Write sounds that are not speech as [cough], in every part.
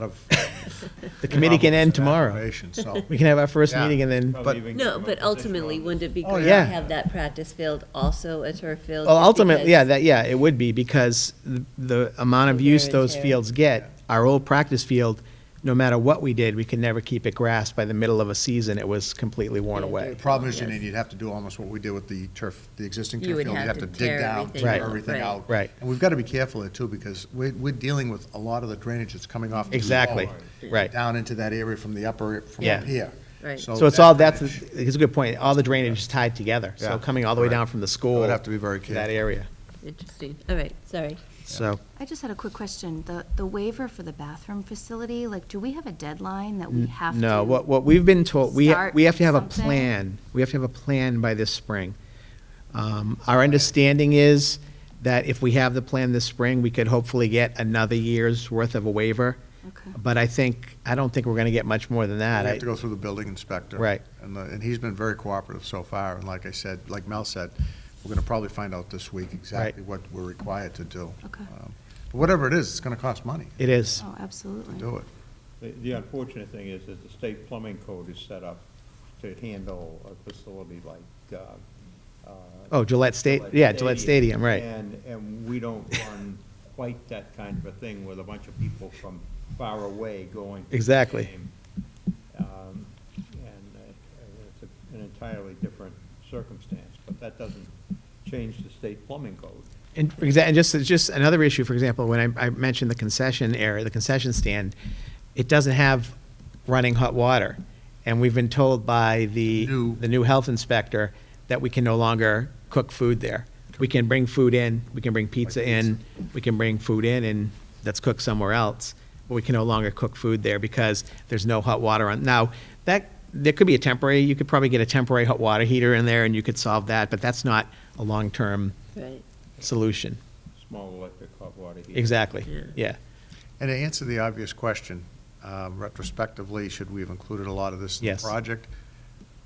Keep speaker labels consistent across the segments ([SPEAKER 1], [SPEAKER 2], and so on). [SPEAKER 1] lot of. [laughs]
[SPEAKER 2] The committee can
[SPEAKER 1] problems and
[SPEAKER 2] end tomorrow.
[SPEAKER 1] aggravation, So,
[SPEAKER 2] [laughs] We can have our first
[SPEAKER 1] Yeah.
[SPEAKER 2] meeting and then,
[SPEAKER 3] Probably
[SPEAKER 1] But-
[SPEAKER 3] even give
[SPEAKER 4] No,
[SPEAKER 3] them a
[SPEAKER 4] but
[SPEAKER 3] position
[SPEAKER 4] ultimately,
[SPEAKER 3] on-
[SPEAKER 4] wouldn't it be
[SPEAKER 1] Oh,
[SPEAKER 4] great
[SPEAKER 2] yeah.
[SPEAKER 4] to have that practice field also a turf field?
[SPEAKER 2] well,
[SPEAKER 4] just
[SPEAKER 2] ultimately, yeah,
[SPEAKER 4] because-
[SPEAKER 2] that, yeah, it would be because the, the amount of
[SPEAKER 4] Wear
[SPEAKER 2] use
[SPEAKER 4] and
[SPEAKER 2] those
[SPEAKER 4] tear.
[SPEAKER 2] fields get, our old practice field, no matter what we did, we could never keep it grassed. By the middle of a season, it was completely worn
[SPEAKER 4] Yeah,
[SPEAKER 2] away.
[SPEAKER 1] the problem is, Janine,
[SPEAKER 4] Yes.
[SPEAKER 1] you'd have to do almost what we did with the turf, the existing
[SPEAKER 4] You
[SPEAKER 1] turf
[SPEAKER 4] would
[SPEAKER 1] field. You'd
[SPEAKER 4] have
[SPEAKER 1] have
[SPEAKER 4] to
[SPEAKER 1] to dig
[SPEAKER 4] tear
[SPEAKER 1] down,
[SPEAKER 4] everything
[SPEAKER 1] tear
[SPEAKER 2] Right. out.
[SPEAKER 1] everything
[SPEAKER 4] Right.
[SPEAKER 1] out.
[SPEAKER 2] Right.
[SPEAKER 1] And we've got to be careful there too, because we're, we're dealing with a lot of the drainage that's coming off. the
[SPEAKER 2] Exactly,
[SPEAKER 1] lower,
[SPEAKER 2] right.
[SPEAKER 1] Down into that area from the upper, from
[SPEAKER 2] Yeah.
[SPEAKER 1] up here.
[SPEAKER 4] Right.
[SPEAKER 1] Oh,
[SPEAKER 2] So it's all,
[SPEAKER 1] that
[SPEAKER 2] that's,
[SPEAKER 1] drainage-
[SPEAKER 2] it's a good point. All the drainage is tied together.
[SPEAKER 1] Yeah.
[SPEAKER 2] So coming all the way
[SPEAKER 1] Correct.
[SPEAKER 2] down from the school.
[SPEAKER 1] have to be very
[SPEAKER 2] to That
[SPEAKER 1] careful.
[SPEAKER 2] area.
[SPEAKER 4] Interesting, all right, sorry.
[SPEAKER 2] So,
[SPEAKER 5] I just had a quick question. The, the waiver for the bathroom facility, like, do we have a deadline that we have to?
[SPEAKER 2] Mm, no, what, what we've been told, we,
[SPEAKER 5] start
[SPEAKER 2] we have to have a
[SPEAKER 5] something?
[SPEAKER 2] plan. We have to have a plan by this spring. Um, Our understanding is that if we have the plan this spring, we could hopefully get another year's worth of a waiver.
[SPEAKER 5] Okay.
[SPEAKER 2] But I think, I don't think we're gonna get much more than that.
[SPEAKER 1] We
[SPEAKER 2] I-
[SPEAKER 1] have to go through the building inspector.
[SPEAKER 2] Right.
[SPEAKER 1] And, the- and he's been very cooperative so far, and like I said, like Mel said, we're gonna probably find out this week exactly what we're required to do.
[SPEAKER 5] Okay.
[SPEAKER 1] Um, but Whatever it is, it's gonna cost money
[SPEAKER 2] It is,
[SPEAKER 5] Oh,
[SPEAKER 1] to
[SPEAKER 5] absolutely.
[SPEAKER 1] do it.
[SPEAKER 3] The the unfortunate thing is that the state plumbing code is set up to handle a facility like, uh, uh.
[SPEAKER 2] Oh, Gillette Sta- yeah, Gillette Stadium, right.
[SPEAKER 3] And, and we don't run quite that kind of a thing with a bunch of people from far away going. to the
[SPEAKER 2] Exactly.
[SPEAKER 3] game. Um, And uh, it's a- an entirely different circumstance, but that doesn't change the state plumbing code.
[SPEAKER 2] And, for exa- and just, it's just another issue, for example, when I, I mentioned the concession area, the concession stand, it doesn't have running hot water. And we've been told by the,
[SPEAKER 1] New.
[SPEAKER 2] the new health inspector that we can no longer cook food there. We can bring food in, we can bring pizza in, we can bring food in and that's cooked somewhere else. But we can no longer cook food there because there's no hot water on. Now, that, there could be a temporary, you could probably get a temporary hot water heater in there and you could solve that, but that's not a long-term
[SPEAKER 4] Right,
[SPEAKER 2] solution.
[SPEAKER 3] Small electric hot water heater.
[SPEAKER 2] Exactly,
[SPEAKER 4] Yeah.
[SPEAKER 2] yeah.
[SPEAKER 1] And to answer the obvious question, um, retrospectively, should we have included a lot of this in the
[SPEAKER 2] Yes.
[SPEAKER 1] project?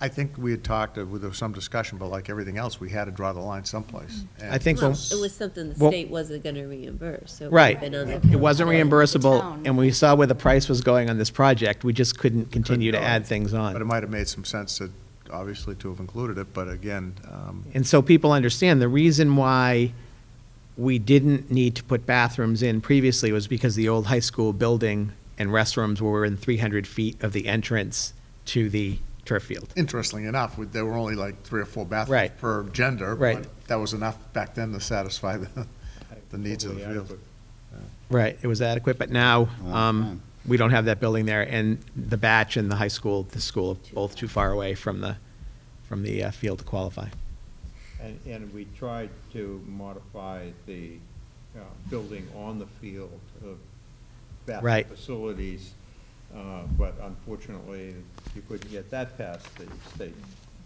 [SPEAKER 1] I think we had talked, uh, there was some discussion, but like everything else, we had to draw the line someplace.
[SPEAKER 2] I think
[SPEAKER 4] well,
[SPEAKER 2] when-
[SPEAKER 4] it was something the
[SPEAKER 2] Well-
[SPEAKER 4] state wasn't gonna reimburse, so. it would've
[SPEAKER 2] Right.
[SPEAKER 4] been on the
[SPEAKER 2] It wasn't
[SPEAKER 5] Yeah.
[SPEAKER 2] reimbursable,
[SPEAKER 5] Town.
[SPEAKER 2] and we saw where the price was going on this project, we just couldn't continue to
[SPEAKER 1] go.
[SPEAKER 2] add things
[SPEAKER 1] But it
[SPEAKER 2] on.
[SPEAKER 1] might have made some sense to, obviously, to have included it, but again, um,
[SPEAKER 2] And so people understand, the reason why we didn't need to put bathrooms in previously was because the old high school building and restrooms were in 300 feet of the entrance to the turf field.
[SPEAKER 1] interestingly enough, we- there were only like three or four bathrooms
[SPEAKER 2] Right.
[SPEAKER 1] per gender. but
[SPEAKER 2] Right.
[SPEAKER 1] That was enough back then to satisfy the, the needs of the
[SPEAKER 3] Totally
[SPEAKER 1] field.
[SPEAKER 3] adequate.
[SPEAKER 2] Right, it was adequate, but now,
[SPEAKER 6] Wow,
[SPEAKER 2] um,
[SPEAKER 6] man.
[SPEAKER 2] we don't have that building there, and the batch and the high school, the school, are both too far away from the, from the uh, field to qualify.
[SPEAKER 3] And, and we tried to modify the uh, building on the field of bathroom
[SPEAKER 2] Right.
[SPEAKER 3] facilities, uh, but unfortunately, you couldn't get that past the state.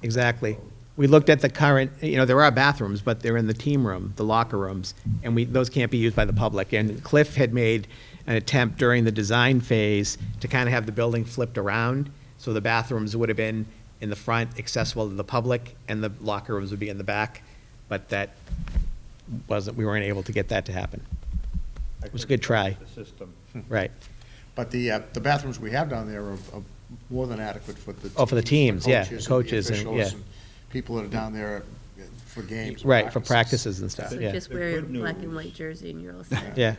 [SPEAKER 2] Exactly. We looked at the current, you know, there are bathrooms, but they're in the team room, the locker rooms, and we, those can't be used by the public. And Cliff had made an attempt during the design phase to kind of have the building flipped around, so the bathrooms would have been in the front, accessible to the public, and the locker rooms would be in the back, but that wasn't, we weren't able to get that to happen.
[SPEAKER 3] I
[SPEAKER 2] It was a
[SPEAKER 3] couldn't
[SPEAKER 2] good try.
[SPEAKER 3] trust The system.
[SPEAKER 2] Right.
[SPEAKER 1] But the, uh, the bathrooms we have down there are are more than adequate for the.
[SPEAKER 2] Oh, for the teams, yeah, the coaches and-
[SPEAKER 1] the officials
[SPEAKER 2] yeah.
[SPEAKER 1] People that are down there uh, for games. and
[SPEAKER 2] Right, for practices and stuff,
[SPEAKER 4] So
[SPEAKER 2] yeah.
[SPEAKER 4] just
[SPEAKER 3] The
[SPEAKER 4] wear your
[SPEAKER 3] good
[SPEAKER 4] black and
[SPEAKER 3] news-
[SPEAKER 4] white jersey and you're all set.
[SPEAKER 2] Yeah.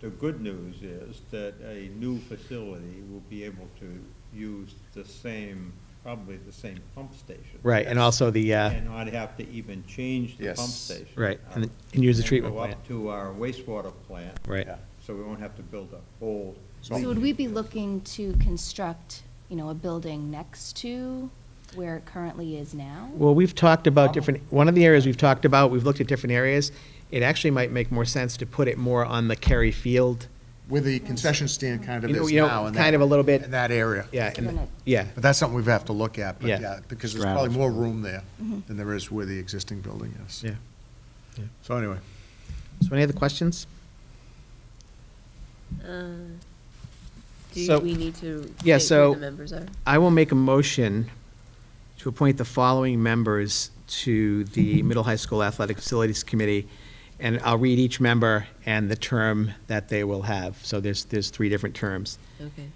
[SPEAKER 3] The good news is that a new facility will be able to use the same, probably the same pump station.
[SPEAKER 2] Right, and also the, uh,
[SPEAKER 3] And not have to even change the pump
[SPEAKER 1] Yes.
[SPEAKER 3] station. Uh,
[SPEAKER 2] Right, and- and use the treatment
[SPEAKER 3] Go
[SPEAKER 2] plant.
[SPEAKER 3] up to our wastewater plant.
[SPEAKER 2] right.
[SPEAKER 1] Yeah.
[SPEAKER 3] So we won't have to build a whole.
[SPEAKER 5] So would we be looking to construct, you know, a building next to where it currently is now?
[SPEAKER 2] Well, we've talked about different, one of the areas we've talked about, we've looked at different areas. It actually might make more sense to put it more on the Cary Field.
[SPEAKER 1] Where the concession stand kind of
[SPEAKER 2] You know-
[SPEAKER 1] is
[SPEAKER 2] you know,
[SPEAKER 1] now. in
[SPEAKER 2] kind
[SPEAKER 1] that-
[SPEAKER 2] of a little bit-
[SPEAKER 1] In that area.
[SPEAKER 2] Yeah, and-
[SPEAKER 5] Than it-
[SPEAKER 2] yeah,
[SPEAKER 1] But that's something we have to look at, but
[SPEAKER 2] Yeah.
[SPEAKER 1] yeah, because there's probably
[SPEAKER 6] Straddles.
[SPEAKER 1] more room there
[SPEAKER 5] Mm-hmm.
[SPEAKER 1] than there is where the existing building is.
[SPEAKER 2] yeah.
[SPEAKER 1] So anyway,
[SPEAKER 2] So any other questions?
[SPEAKER 4] [laughs] Uh,
[SPEAKER 2] So-
[SPEAKER 4] Do we need to state
[SPEAKER 2] Yeah,
[SPEAKER 4] who
[SPEAKER 2] so-
[SPEAKER 4] the members are?
[SPEAKER 2] I will make a motion to appoint the following members to the Middle High School Athletic Facilities Committee and I'll read each member and the term that they will have. So there's, there's three different terms.
[SPEAKER 4] okay.